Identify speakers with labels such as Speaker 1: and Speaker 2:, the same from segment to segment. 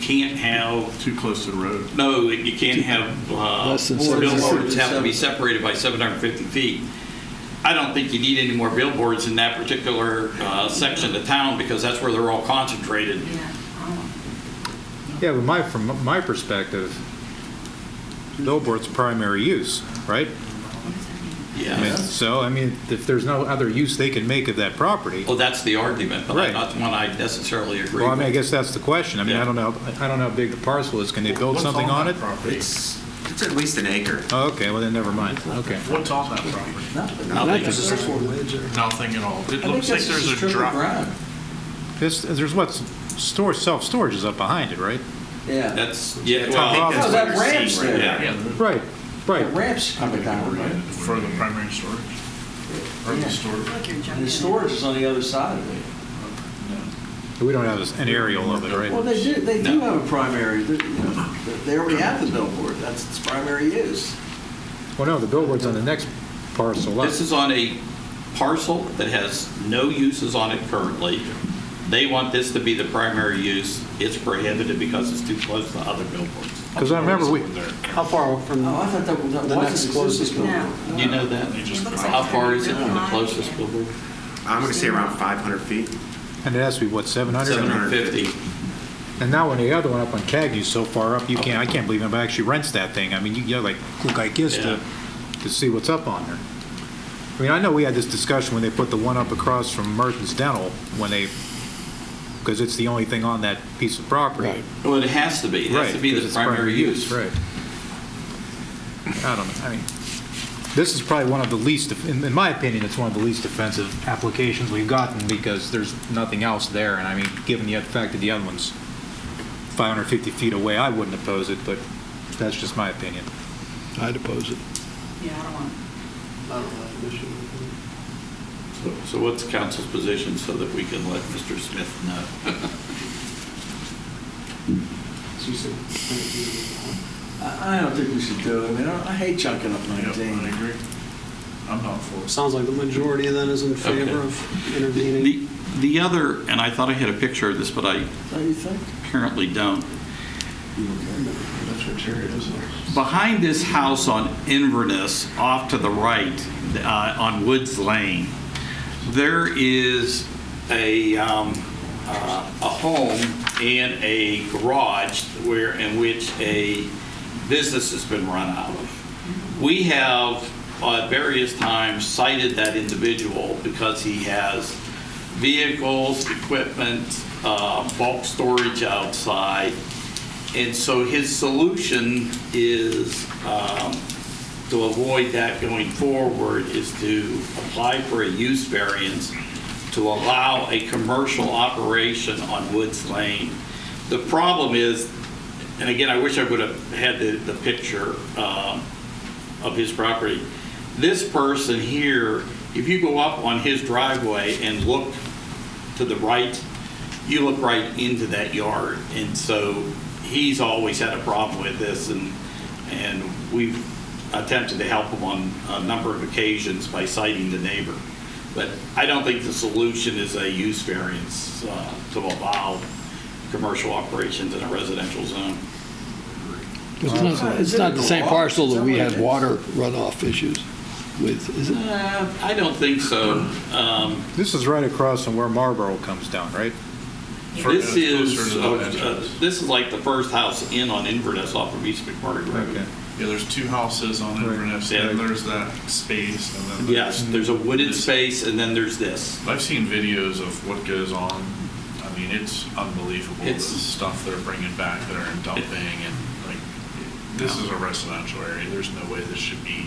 Speaker 1: can't have,
Speaker 2: Too close to the road.
Speaker 1: no, you can't have uh,
Speaker 3: Less than
Speaker 1: four
Speaker 3: 750.
Speaker 1: billboards have to be separated by 750 feet. I don't think you need any more billboards in that particular uh, section of town because that's where they're all concentrated.
Speaker 4: Yeah. Oh.
Speaker 5: Yeah, but my, from my perspective, billboard's primary use, right?
Speaker 4: What does that mean?
Speaker 5: I mean,
Speaker 1: Yeah.
Speaker 5: so, I mean, if there's no other use they can make of that property,
Speaker 1: Well, that's the argument, but
Speaker 5: Right.
Speaker 1: that's one I necessarily agree
Speaker 5: well, I mean, I
Speaker 1: with.
Speaker 5: guess that's the question. I mean, I don't know, I don't know how big the parcel is. Can they build
Speaker 2: What's
Speaker 5: something on it?
Speaker 2: that property?
Speaker 6: It's, it's at least an acre.
Speaker 5: Oh, okay, well, then never mind. Okay.
Speaker 2: What's on that property?
Speaker 1: Nothing.
Speaker 2: Nothing at all. It looks like there's a drop.
Speaker 6: ground.
Speaker 5: This, there's what, store, self-storage is up behind it, right?
Speaker 6: Yeah.
Speaker 1: That's, yeah, well,
Speaker 5: Top
Speaker 1: I
Speaker 5: off.
Speaker 1: think that's
Speaker 6: Oh,
Speaker 1: what
Speaker 6: that
Speaker 1: you're
Speaker 6: ramp's
Speaker 1: seeing right
Speaker 6: there.
Speaker 1: now.
Speaker 2: Yeah.
Speaker 5: Right,
Speaker 6: The
Speaker 5: right.
Speaker 6: Ramps coming down, right?
Speaker 2: For the primary storage. Or
Speaker 6: Yeah.
Speaker 2: the storage.
Speaker 4: Look, you're jumping.
Speaker 6: And the storage is on the other side of it.
Speaker 5: We don't have an aerial of it,
Speaker 6: Well,
Speaker 5: right?
Speaker 6: they do, they do
Speaker 1: No.
Speaker 6: have a primary, they you know, they already have the billboard, that's its primary use.
Speaker 5: Well, no, the billboard's on the next parcel up.
Speaker 1: This is on a parcel that has no uses on it currently. They want this to be the primary use. It's prohibited because it's too close to other billboards.
Speaker 5: Because I remember we,
Speaker 7: How far from?
Speaker 6: Oh, I thought that was, that
Speaker 7: The
Speaker 6: was
Speaker 7: next
Speaker 6: the
Speaker 7: closest
Speaker 6: closest billboard.
Speaker 1: You know that?
Speaker 4: It looks like
Speaker 1: How far is it from the
Speaker 4: they're
Speaker 1: closest
Speaker 4: really
Speaker 1: billboard?
Speaker 8: I'm going to say around 500 feet.
Speaker 5: and it has to be, what, 700?
Speaker 1: 750.
Speaker 5: And now when the other one up on Cagney's so far up, you can't, I can't believe nobody actually rents that thing. I mean, you gotta like, look like this to, to see what's up on there. I mean, I know we had this discussion when they put the one up across from Merton's Dental, when they, because it's the only thing on that piece of property.
Speaker 7: Right.
Speaker 1: Well, it has to be. It has to be
Speaker 5: 'cause
Speaker 1: the
Speaker 5: it's
Speaker 1: primary use.
Speaker 5: Right. I don't know, I mean, this is probably one of the least, in, in my opinion, it's one of the least offensive applications we've gotten because there's nothing else there, and I mean, given the fact that the other one's 550 feet away, I wouldn't oppose it, but that's just my opinion.
Speaker 3: I'd oppose it.
Speaker 4: Yeah, I don't want.
Speaker 1: So- So what's council's position so that we can let Mr. Smith know?
Speaker 6: I, I don't think we should do it, I mean, I I hate chunking up
Speaker 2: Yep, I
Speaker 6: 19.
Speaker 2: agree. I'm not for it.
Speaker 7: Sounds like the majority then is in favor
Speaker 1: Okay.
Speaker 7: of
Speaker 1: The,
Speaker 7: intervening.
Speaker 1: the other, and I thought I had a picture of this, but I
Speaker 6: Don't you think?
Speaker 1: apparently don't.
Speaker 2: That's what Terry is.
Speaker 1: Behind this house on Inverness, off to the right, uh, on Woods Lane, there is a, um, uh, a home and a garage where, in which a business has been run out of. We have at various times cited that individual because he has vehicles, equipment, uh, bulk storage outside. And so his solution is, um, to avoid that going forward, is to apply for a use variance to allow a commercial operation on Woods Lane. The problem is, and again, I wish I would have had the, the picture um, of his property. This person here, if you go up on his driveway and look to the right, you look right into that yard. And so he's always had a problem with this and, and we've attempted to help him on a number of occasions by citing the neighbor. But I don't think the solution is a use variance uh, to allow commercial operations in a residential zone.
Speaker 3: It's not, it's not the same parcel that we had water runoff issues with, is it?
Speaker 1: Uh, I don't think so. Um,
Speaker 5: This is right across from where Marlboro comes down, right?
Speaker 2: For-
Speaker 1: This
Speaker 2: it's closer
Speaker 1: is,
Speaker 2: to the
Speaker 1: uh,
Speaker 2: entrance.
Speaker 1: uh, this is like the first house in on Inverness off of East McMurray Road.
Speaker 5: Okay.
Speaker 2: Yeah, there's two houses on
Speaker 5: Right.
Speaker 2: Inverness,
Speaker 1: Yeah.
Speaker 2: and there's that space, and then.
Speaker 1: Yes, there's a wooded
Speaker 2: This-
Speaker 1: space and then there's this.
Speaker 2: I've seen videos of what goes on. I mean, it's unbelievable, the
Speaker 1: It's-
Speaker 2: stuff they're bringing back that are dumping, and like, this is a residential area, there's no way this should be,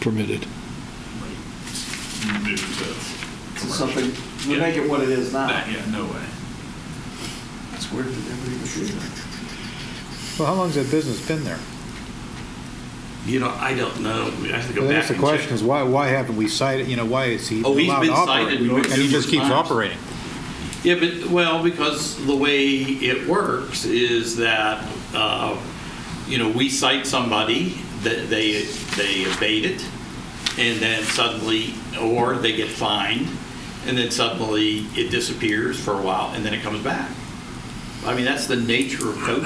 Speaker 3: Permitted.
Speaker 2: like, moved to
Speaker 6: It's
Speaker 2: commercial.
Speaker 6: something, we make it what it is now.
Speaker 2: That- Yeah, no way.
Speaker 6: It's weird that everybody would do that.
Speaker 5: Well, how long's that business been there?
Speaker 1: You know, I don't know. We have to go
Speaker 5: Well,
Speaker 1: back
Speaker 5: that's the
Speaker 1: and check.
Speaker 5: question, is why, why haven't we cited, you know, why is he
Speaker 1: Oh, he's
Speaker 5: allowed
Speaker 1: been
Speaker 5: to operate?
Speaker 1: cited
Speaker 5: And he
Speaker 1: numerous
Speaker 5: just keeps
Speaker 1: times.
Speaker 5: operating.
Speaker 1: Yeah, but, well, because the way it works is that, uh, you know, we cite somebody, that they, they abate it, and then suddenly, or they get fined, and then suddenly it disappears for a while, and then it comes back. I mean, that's the nature of code